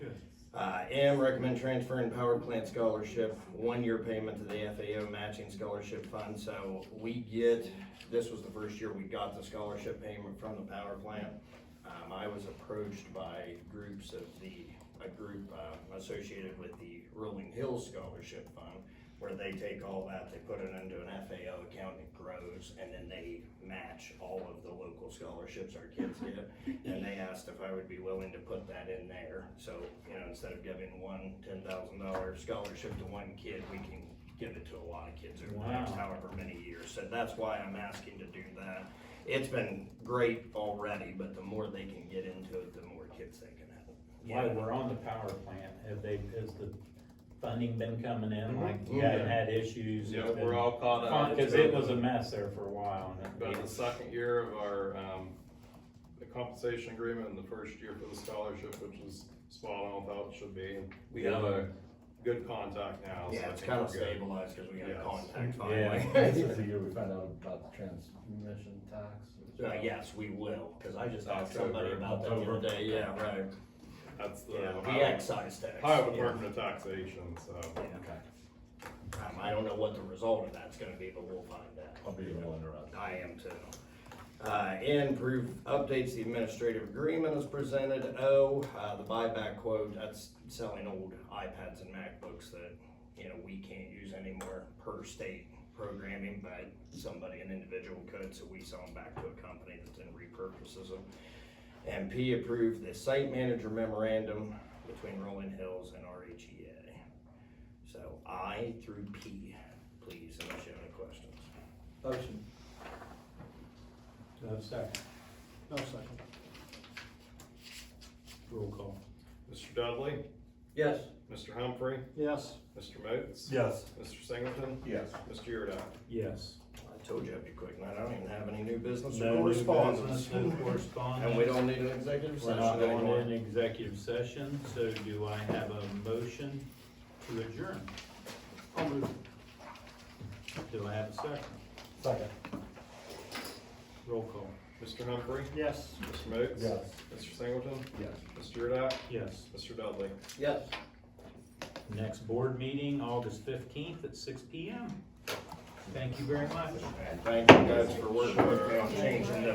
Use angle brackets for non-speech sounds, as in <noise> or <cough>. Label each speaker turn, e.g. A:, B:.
A: Uh, M, recommend transferring power plant scholarship, one-year payment to the FAO matching scholarship fund. So we get, this was the first year we got the scholarship payment from the power plant. Um, I was approached by groups of the, a group, uh, associated with the Rolling Hills Scholarship Fund, where they take all that, they put it into an FAO account, it grows, and then they match all of the local scholarships our kids get. And they asked if I would be willing to put that in there, so, you know, instead of giving one ten thousand dollar scholarship to one kid, we can give it to a lot of kids over the next
B: Wow.
A: however many years, so that's why I'm asking to do that. It's been great already, but the more they can get into it, the more kids they can have.
B: While we're on the power plant, have they, has the funding been coming in?
C: Mhm.
B: Like, you
A: Yeah.
B: haven't had issues?
C: Yeah,
B: It's been
C: we're all caught up.
B: fun- Cause it was a mess there for a while and
C: About
B: it-
C: the second year of our, um, the compensation agreement and the first year for the scholarship, which is spot on with how it should be. We have a good contact now. so I
A: Yeah, it's
C: think
A: kind of
C: we're good.
A: stabilized because we got
C: Yes.
A: contact
D: This
C: <laughs>
A: finally.
D: is the year we found out about the transmission tax.
A: Uh, yes, we will, because I just asked somebody
C: October.
A: about that the other day, yeah, right.
C: That's the
A: Yeah, the
C: Ohio-
A: excise tax.
C: Ohio
A: yeah.
C: Department of Taxation, so.
A: Yeah. Um, I don't know what the result of that's gonna be, but we'll find out.
D: I'll be the one interrupted.
A: I am too. Uh, N, proof updates the administrative agreement as presented. O, uh, the buyback quote, that's selling old iPads and MacBooks that, you know, we can't use anymore per state programming, but somebody, an individual could, so we sell them back to a company that then repurposes them. And P, approve the site manager memorandum between Rolling Hills and E RHEA. So I through P, please, unless you have any questions.
E: Motion.
B: Do I have a second?
E: No second.
B: Roll call.
C: Mr. Dudley,
E: Yes.
C: Mr. Humphrey,
E: Yes.
C: Mr. Moats.
D: Yes.
C: Mr. Singleton,
D: Yes.
C: Mr. Yurdak.
B: Yes.
A: I told you I'd be quick, and I don't even have any new business
B: No
A: or
B: new
A: correspondence.
B: business, No correspondence.
A: And we don't need an executive
B: We're not
A: session
B: going
A: anymore.
B: in executive session, so do I have a motion to adjourn?
E: I'll move.
B: Do I have a second?
D: Second.
B: Roll call.
C: Mr. Humphrey,
E: Yes.
C: Mr. Moats.
D: Yes.
C: Mr. Singleton,
D: Yes.
C: Mr. Yurdak,
B: Yes.
C: Mr. Dudley.
E: Yes.
B: Next board meeting, August fifteenth at six P M. Thank you very much.
A: And thank you guys for working with me on changing the